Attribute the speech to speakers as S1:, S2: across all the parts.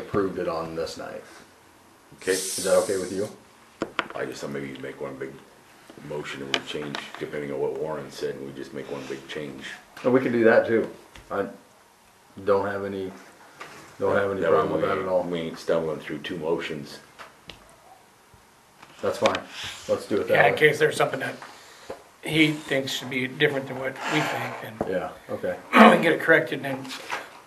S1: approved it on this night.
S2: Okay,
S1: Is that okay with you?
S2: I just thought maybe you'd make one big motion and we change, depending on what Warren said, and we just make one big change.
S1: And we can do that too. I don't have any, don't have any
S2: That way
S1: problem with that
S2: we-
S1: at all.
S2: We ain't stumbling through two motions.
S1: That's fine. Let's do it
S3: Yeah,
S1: that
S3: in
S1: way.
S3: case there's something that he thinks should be different than what we think, then
S1: Yeah, okay.
S3: we can get it corrected and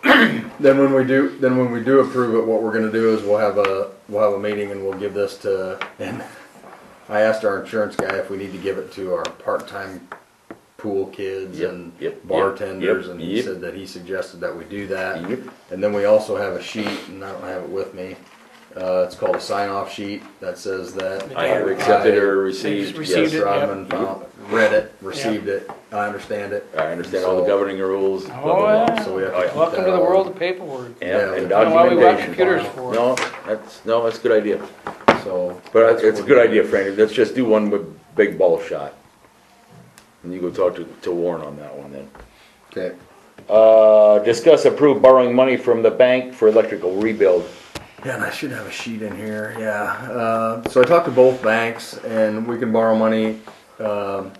S3: then,
S1: Then when we do, then when we do approve it, what we're gonna do is we'll have a, we'll have a meeting and we'll give this to, and I asked our insurance guy if we need to give it to our part-time pool kids
S2: Yep,
S1: and
S2: yep, yep,
S1: bartenders,
S2: yep,
S1: and he
S2: yep.
S1: said that he suggested that we do that.
S2: Yep.
S1: And then we also have a sheet, and I don't have it with me, uh, it's called a sign-off sheet that says that.
S2: I have accepted or
S3: Just
S2: received,
S3: received
S1: Yes,
S2: yes.
S3: it. yep.
S1: Rodman found, read it, received it, I understand it.
S2: I understand all the
S1: So-
S2: governing rules, blah,
S3: Oh,
S2: blah, blah.
S3: yeah.
S1: So we have
S2: Oh, yeah.
S1: to.
S3: welcome to the world of paperwork.
S2: Yeah, and
S1: I don't know
S3: why we bought
S2: documentation.
S3: computers for.
S2: No, that's, no, that's a good idea.
S1: So.
S2: But
S1: that's
S2: it's a
S1: what we're
S2: good idea,
S1: doing.
S2: Franny, let's just do one with big ball shot. And you go talk to, to Warren on that one then.
S1: Okay.
S2: Uh, discuss approved borrowing money from the bank for electrical rebuild.
S1: Yeah, and I should have a sheet in here, yeah. Uh, so I talked to both banks and we can borrow money, um,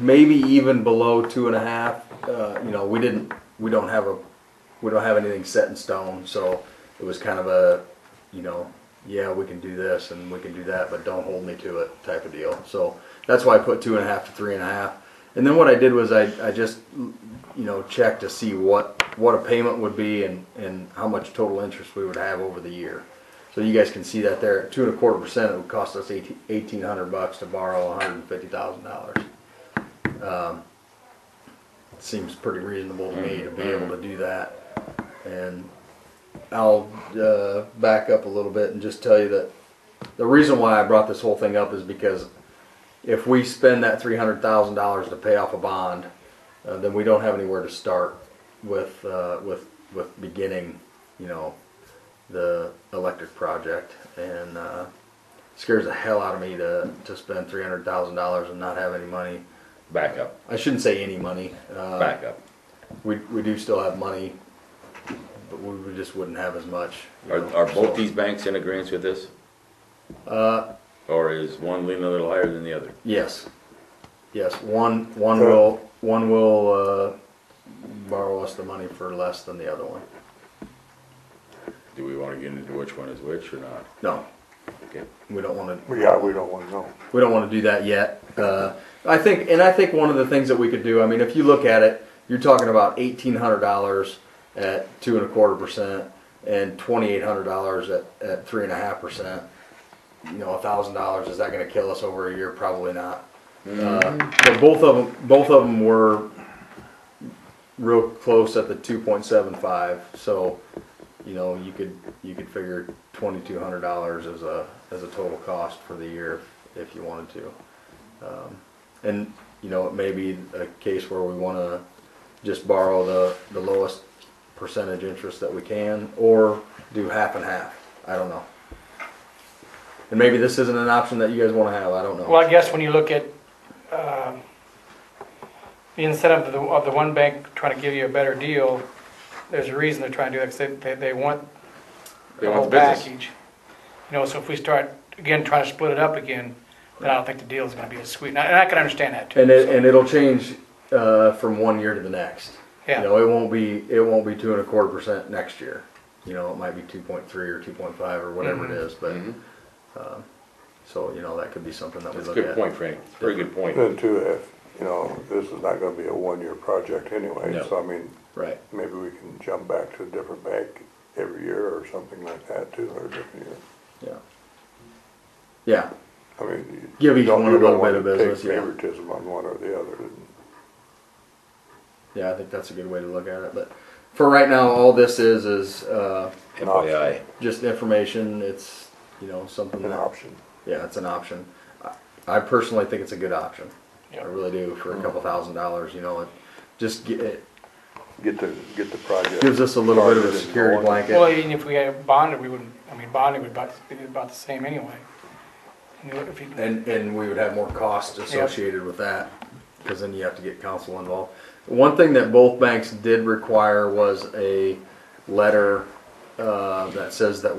S1: maybe even below two and a half. Uh, you know, we didn't, we don't have a, we don't have anything set in stone, so it was kind of a, you know, yeah, we can do this and we can do that, but don't hold me to it type of deal. So that's why I put two and a half to three and a half. And then what I did was I, I just, you know, checked to see what, what a payment would be and, and how much total interest we would have over the year. So you guys can see that there, at two and a quarter percent, it would cost us eighteen, eighteen hundred bucks to borrow hundred and fifty thousand dollars. Seems pretty reasonable to me to be able to do that. And I'll uh, back up a little bit and just tell you that the reason why I brought this whole thing up is because if we spend that three hundred thousand dollars to pay off a bond, uh, then we don't have anywhere to start with uh, with with beginning, you know, the electric project. And uh, scares the hell out of me to to spend three hundred thousand dollars and not have any money.
S2: Back up,
S1: I shouldn't say any money. Uh,
S2: back up.
S1: we, we do still have money, but we, we just wouldn't have as much. you
S2: Are,
S1: know,
S2: are
S1: so-
S2: both these banks in agreement with this?
S1: Uh,
S2: Or is one leaning a little higher than the other?
S1: yes, yes, one, one will, one will, uh, borrow us the money for less than the other one.
S2: Do we wanna get into which one is which or not?
S1: No,
S2: Okay.
S1: we don't wanna,
S4: Yeah, we don't wanna know.
S1: we don't wanna do that yet. Uh, I think, and I think one of the things that we could do, I mean, if you look at it, you're talking about eighteen hundred dollars at two and a quarter percent and twenty-eight hundred dollars at, at three and a half percent. you know, a thousand dollars, is that gonna kill us over a year? Probably not. Uh, But both of them, both of them were real close at the two point seven five, so, you know, you could, you could figure twenty-two hundred dollars as a, as a total cost for the year if you wanted to. Um, And, you know, it may be a case where we wanna just borrow the, the lowest percentage interest that we can, or do half and half, I don't know. And maybe this isn't an option that you guys want to have. I don't know.
S3: Well, I guess when you look at, um, the incentive of the, of the one bank trying to give you a better deal, there's a reason they're trying to do that, 'cause they, they, they want
S2: They
S3: the
S2: want
S3: whole
S2: the business.
S3: package. You know, so if we start, again, trying to split it up again, then I don't think the deal's gonna be as sweet, and I, and I can understand that too.
S1: and it, and it'll change uh, from one year to the next.
S3: Yeah.
S1: You know, it won't be it won't be two and a quarter percent next year. You know, it might be two point three or two point five or whatever it is. But um, so you know, that could be something that
S2: That's a
S1: we look
S2: good
S1: at.
S2: point, Franny. It's a Very good point.
S4: Then too, if, you know, this is not gonna be a one-year project anyway,
S2: No.
S4: so I mean,
S1: Right.
S4: maybe we can jump back to a different bank every year or something like that too, or a different year.
S1: Yeah. Yeah.
S4: I mean. you
S1: Give each
S4: don't-
S1: one
S4: you
S1: a little
S4: don't
S1: bit of
S4: wanna
S1: business,
S4: take
S1: yeah.
S4: Favoritism on one or the other, and
S1: Yeah. I think that's a good way to look at it. But for right now, all this is is uh,
S2: FYI.
S1: just information. It's you know something
S4: an
S1: that
S4: option.
S1: Yeah, it's an option. I- I personally think it's a good option. I really do for a couple thousand dollars, you know, it just ge- it
S4: Get the, get the project.
S1: gives us a little bit of a
S4: started and
S1: security
S4: going.
S3: Well,
S1: blanket.
S3: even if we had bonded, we wouldn't, I mean, bonding would about, be about the same anyway. And you look- if you-
S1: And, and we would have more costs associated with that, because then you have to get council involved. One thing that both banks did require was a letter, uh, that says that